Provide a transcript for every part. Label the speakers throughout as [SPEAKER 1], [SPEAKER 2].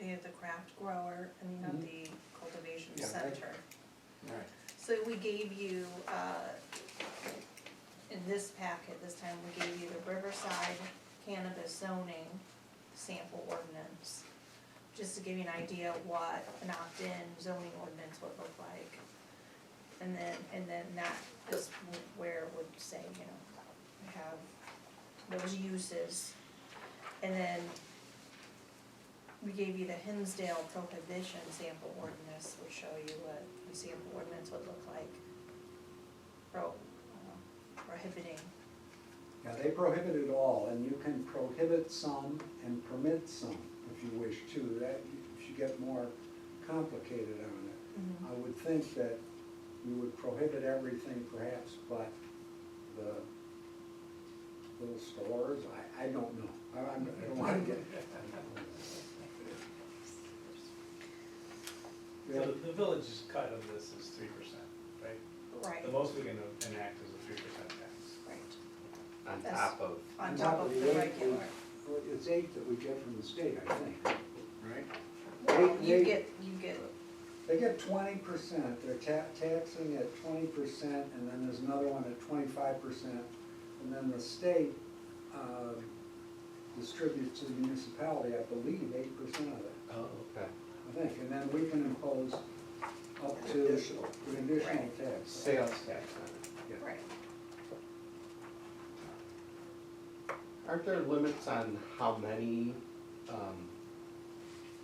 [SPEAKER 1] only at the craft grower, I mean, at the cultivation
[SPEAKER 2] Yeah, right.
[SPEAKER 1] center.
[SPEAKER 2] Right.
[SPEAKER 1] So we gave you, uh, in this packet, this time, we gave you the Riverside cannabis zoning sample ordinance. Just to give you an idea of what an opt-in zoning ordinance would look like. And then, and then that is where it would say, you know, we have those uses. And then we gave you the Hinsdale prohibition sample ordinance, which show you what a sample ordinance would look like. Pro, uh, prohibiting,
[SPEAKER 2] Yeah, they prohibit it all, and you can prohibit some and permit some if you wish to. That should get more complicated on it.
[SPEAKER 1] Mm-hmm.
[SPEAKER 2] I would think that you would prohibit everything perhaps but the little stores, I, I don't know. I I'm- I don't wanna get.
[SPEAKER 3] So the, the village's cut of this is three percent, right?
[SPEAKER 1] right,
[SPEAKER 3] The most we can enact is a three percent tax.
[SPEAKER 1] right,
[SPEAKER 4] on
[SPEAKER 1] That's-
[SPEAKER 4] top of,
[SPEAKER 1] on top of the
[SPEAKER 2] eight
[SPEAKER 1] regular.
[SPEAKER 2] we- well, It's eight that we get from the state, I think, right?
[SPEAKER 1] Well,
[SPEAKER 2] They-
[SPEAKER 1] You
[SPEAKER 2] they-
[SPEAKER 1] get, you get,
[SPEAKER 2] They get twenty percent, they're ta- taxing at twenty percent, and then there's another one at twenty-five percent. And then the state, uh, distributes to the municipality, I believe, eight percent of it,
[SPEAKER 4] oh, okay.
[SPEAKER 2] I think. And then we can impose up to.
[SPEAKER 4] Additional.
[SPEAKER 2] an Additional
[SPEAKER 1] Right.
[SPEAKER 2] tax.
[SPEAKER 4] Sales tax on
[SPEAKER 2] Yeah.
[SPEAKER 1] right,
[SPEAKER 4] it. Aren't there limits on how many, um,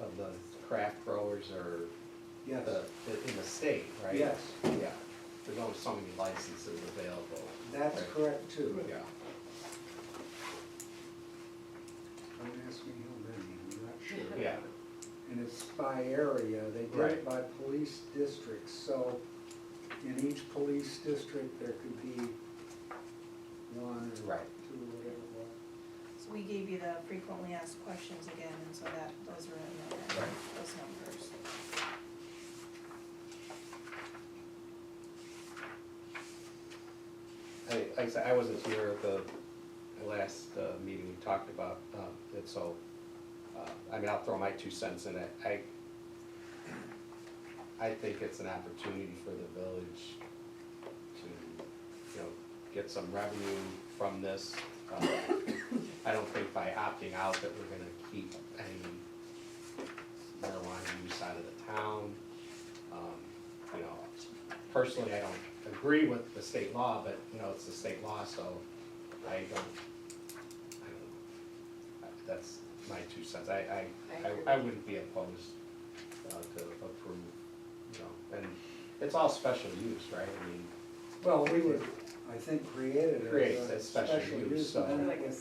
[SPEAKER 4] of the craft growers are
[SPEAKER 2] Yes,
[SPEAKER 4] the, the- in the state, right?
[SPEAKER 2] yes,
[SPEAKER 4] Yeah, there's only so many licenses available.
[SPEAKER 2] that's
[SPEAKER 4] Right.
[SPEAKER 2] correct too.
[SPEAKER 4] Yeah.
[SPEAKER 2] Don't ask me how many, I'm not sure.
[SPEAKER 4] Yeah,
[SPEAKER 2] and it's by area, they did it
[SPEAKER 4] Right.
[SPEAKER 2] by police districts, so in each police district, there could be one or two,
[SPEAKER 4] Right.
[SPEAKER 2] whatever it was.
[SPEAKER 1] so we gave you the frequently asked questions again, and so that, those are in there,
[SPEAKER 4] Right.
[SPEAKER 1] those numbers.
[SPEAKER 4] I, like I said, I wasn't here at the the last uh, meeting we talked about, um, it, so, uh, I mean, I'll throw my two cents in it. I, I think it's an opportunity for the village to, you know, get some revenue from this. Uh, I don't think by opting out that we're gonna keep any marijuana use out of the town. Um, You know, personally, I don't agree with the state law, but, you know, it's the state law, so I don't, I don't, I- that's my two cents. I, I, I- I wouldn't be opposed uh, to approve, you know, and it's all special use, right? I mean,
[SPEAKER 2] Well, we would, I think, create
[SPEAKER 4] Create
[SPEAKER 2] it as a
[SPEAKER 4] that special
[SPEAKER 2] special
[SPEAKER 4] use,
[SPEAKER 2] use. and
[SPEAKER 4] so-
[SPEAKER 2] then it would-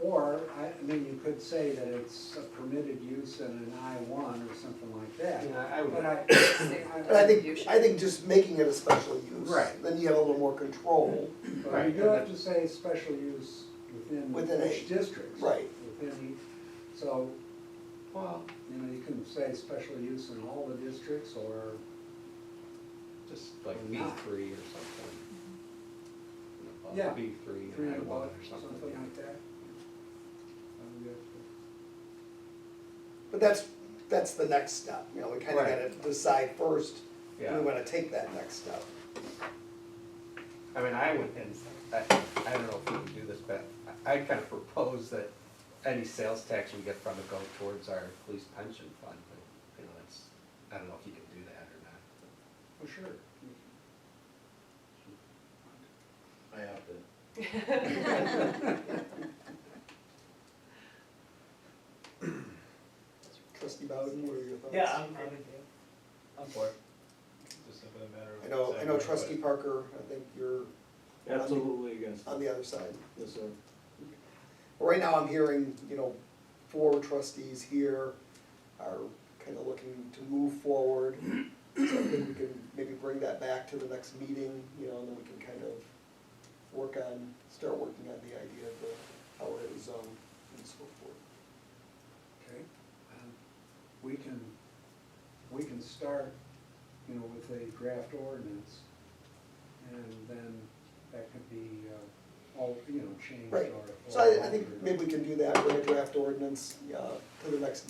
[SPEAKER 2] Or, I, I mean, you could say that it's a permitted use in an I one or something like that.
[SPEAKER 4] you know, I would,
[SPEAKER 2] But I,
[SPEAKER 5] But I
[SPEAKER 2] I,
[SPEAKER 5] think, I think just making it a special use.
[SPEAKER 4] Right.
[SPEAKER 5] Then you have a little more control.
[SPEAKER 2] but you
[SPEAKER 4] Right,
[SPEAKER 2] do
[SPEAKER 4] and
[SPEAKER 2] have to say special use
[SPEAKER 5] Within
[SPEAKER 2] within each
[SPEAKER 5] a-
[SPEAKER 2] district.
[SPEAKER 5] right.
[SPEAKER 2] Within each, so
[SPEAKER 4] well,
[SPEAKER 2] You know, you can say special use in all the districts or,
[SPEAKER 4] just like B three or something. You know,
[SPEAKER 2] Yeah.
[SPEAKER 4] B three
[SPEAKER 2] three
[SPEAKER 4] and I
[SPEAKER 2] and
[SPEAKER 4] one
[SPEAKER 2] above,
[SPEAKER 4] or something.
[SPEAKER 2] something like that. Um, yeah.
[SPEAKER 5] But that's, that's the next step, you know, we kinda
[SPEAKER 4] Right.
[SPEAKER 5] gotta decide first, if
[SPEAKER 4] Yeah.
[SPEAKER 5] we wanna take that next step.
[SPEAKER 4] I mean, I would, and I, I don't know if we can do this, but I I'd kind of propose that any sales tax we get from it go towards our police pension fund, but, you know, that's, I don't know if you can do that or not.
[SPEAKER 2] For sure.
[SPEAKER 6] I have to.
[SPEAKER 5] Trustee Bowden, what are your thoughts?
[SPEAKER 3] Yeah, I'm, I'm, I'm for it. Just simply a matter of.
[SPEAKER 5] I know, I
[SPEAKER 3] deciding
[SPEAKER 5] know
[SPEAKER 3] what-
[SPEAKER 5] trustee Parker, I think you're
[SPEAKER 6] Absolutely against
[SPEAKER 5] on
[SPEAKER 6] it,
[SPEAKER 5] the other side.
[SPEAKER 6] yes, sir.
[SPEAKER 5] But Right now, I'm hearing, you know, four trustees here are kinda looking to move forward. So I think we can maybe bring that back to the next meeting, you know, and then we can kind of work on, start working on the idea of the, how it is zoned and so forth.
[SPEAKER 2] Okay. Um, We can, we can start, you know, with a draft ordinance and then that could be, uh, all, you know, changed or.
[SPEAKER 5] Right, so
[SPEAKER 2] or
[SPEAKER 5] I, I think
[SPEAKER 2] altered.
[SPEAKER 5] maybe we can do that, bring a draft ordinance, uh, to the next